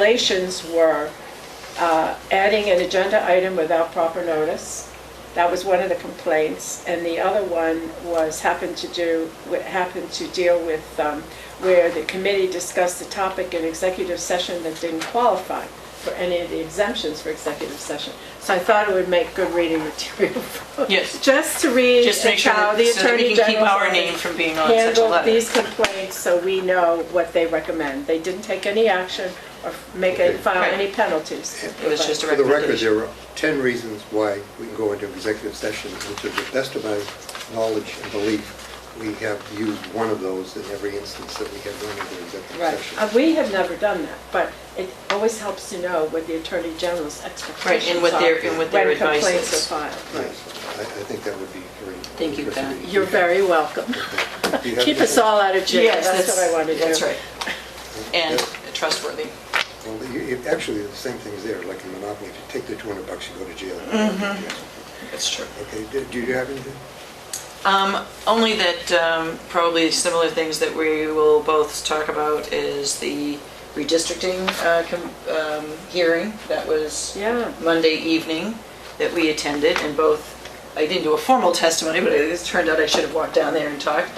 Violations were uh, adding an agenda item without proper notice. That was one of the complaints. And the other one was happened to do, happened to deal with um, where the committee discussed the topic in executive session that didn't qualify for any of the exemptions for executive session. So I thought it would make good reading material. Yes. Just to read Just make and sure how that the so that Attorney we can keep General's our office name from being on such a handle letter. these complaints so we know what they recommend. They didn't take any action or make, any- file Right. any penalties. It was just a For the record, recommendation. there are 10 reasons why we can go into executive session, and to the best of my knowledge and belief, we have used one of those in every instance that we have gone into Right. executive Uh, session. We have never done that, but it always helps to know what the Attorney General's Right, expectations and what their, are and what their When advice complaints is. are filed. Yes, I I think that would be very... Thank you, Pat. You're very welcome. Keep us all out of jail, Yes, that's what I want to do. That's right. And trustworthy. Well, you- you- Actually, the same thing's there, like in Monopoly, if you take the 200 bucks, you go to jail. Mm-hmm. That's true. Okay, do- do you have anything? Um, Only that um, probably similar things that we will both talk about is the redistricting uh, com- um, hearing that was Yeah. Monday evening that we attended and both, I didn't do a formal testimony, but it turned out I should have walked down there and talked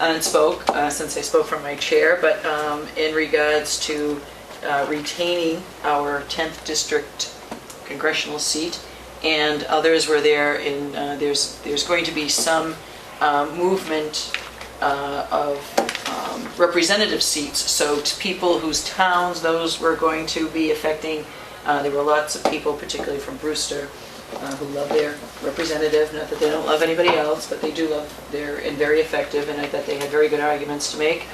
and spoke, uh, since I spoke from my chair, but um, in regards to uh, retaining our 10th district congressional seat, and others were there, and uh, there's, there's going to be some uh, movement uh, of um, representative seats, so to people whose towns those were going to be affecting. uh, There were lots of people, particularly from Brewster, uh, who love their representative, not that they don't love anybody else, but they do love their, and very effective, and I thought they had very good arguments to make,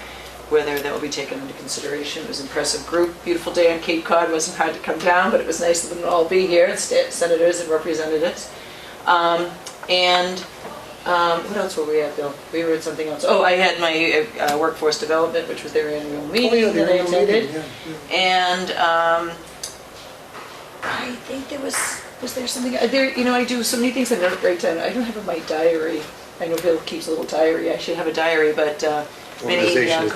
whether that will be taken into consideration. It was an impressive group, beautiful day on Cape Cod, wasn't hard to come down, but it was nice of them to all be here, sta- senators and representatives. Um, And um, what else were we at, Bill? We were at something else. Oh, I had my uh, workforce development, which was their annual Oh, meeting that I attended. And um, I think there was, was there something, uh, there, you know, I do so many things I don't write down. I don't have my diary. I know Bill keeps a little diary. I should have a diary, but uh, many uh, Organization is the key to effective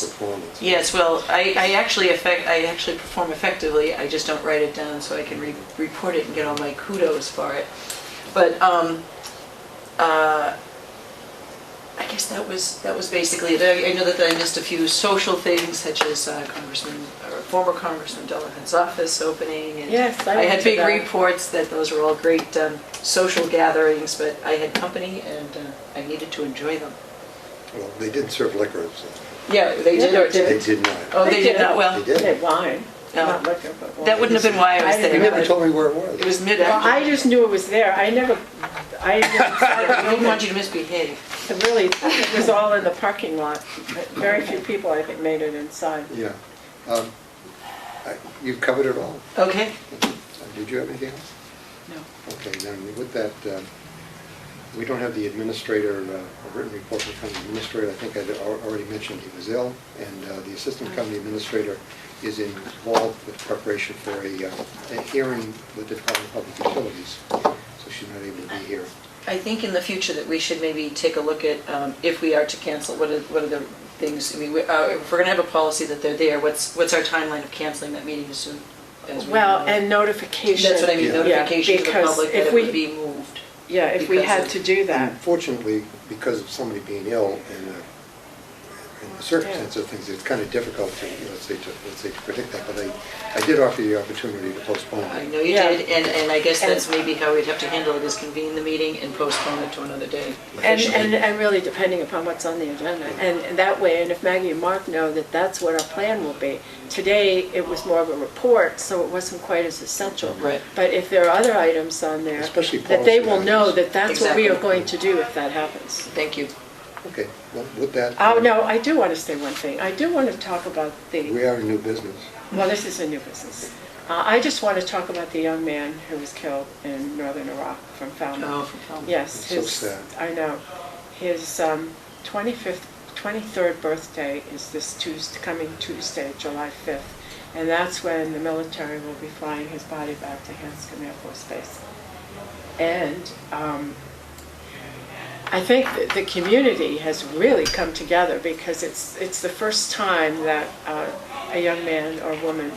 conversations. performance. Yes, well, I, I actually affect, I actually perform effectively, I just don't write it down so I can re- report it and get all my kudos for it. But, um, uh, I guess that was, that was basically it. I I know that I missed a few social things such as uh, Congressman, or former Congressman Delahunt's office opening and. Yes, I I went had to big that. reports that those were all great, um, social gatherings, but I had company and, uh, I needed to enjoy them. Well, they did serve liquor, so Yeah, they did did or or it didn't? they didn't? did not. Oh, they did not, well. They did. They wine, No. not liquor, but wine. That wouldn't have been why I was I didn't You there. never but told me where it was. It was mid Well, I I just knew it was there, I never, I never saw it. don't want you to misbehave. It Really, it was all in the parking lot. Very few people, I think, made it inside. Yeah. Um, I- You've covered it all. Okay. Uh, Did you have anything else? No. Okay, then with that, um, we don't have the administrator, uh, a written report from the administrator. I think I already mentioned he was ill, and uh, the assistant company administrator is involved with preparation for a uh, a hearing with the Department of Public Utilities, so she's not able to be here. I think in the future that we should maybe take a look at, um, if we are to cancel, what are, what are the things, I mean, we- uh, if we're going to have a policy that they're there, what's, what's our timeline of canceling that meeting as soon as we... Well, know? and notification. That's what I mean, Yeah. notification to the because public that if it we- would be moved. Yeah, if we because had of- to do that. Mm-hmm. Unfortunately, because of somebody being ill and uh, and the circumstances of things, it's kind of difficult to, you know, let's say, to, let's say, to predict that, but I, I did offer you the opportunity to postpone I it. know you Yeah. did, and, and I guess And- that's maybe how we'd have to handle it, is convene the meeting and postpone it to another day. And, and, and really depending upon what's on the agenda. And and that way, and if Maggie and Mark know that that's what our plan will be. Today, it was more of a report, so it wasn't quite as essential. Right. But if there are other items on there, Especially that they will policy know items. that that's what we are Exactly. going to do if that happens. Thank you. Okay, well, with that. Oh, uh, no, I do want to say one thing. I do want to talk about the. We are in new business. Well, this is a new business. Uh, I just want to talk about the young man who was killed in northern Iraq from Oh, Falmouth. from Falmouth. Yes, Um, So his, sad. I know. His um, 25th, 23rd birthday is this Tuesday, coming Tuesday, July 5th. And that's when the military will be flying his body back to Hanscom Air Force Base. And um, I think that the community has really come together because it's, it's the first time that uh, a young man or woman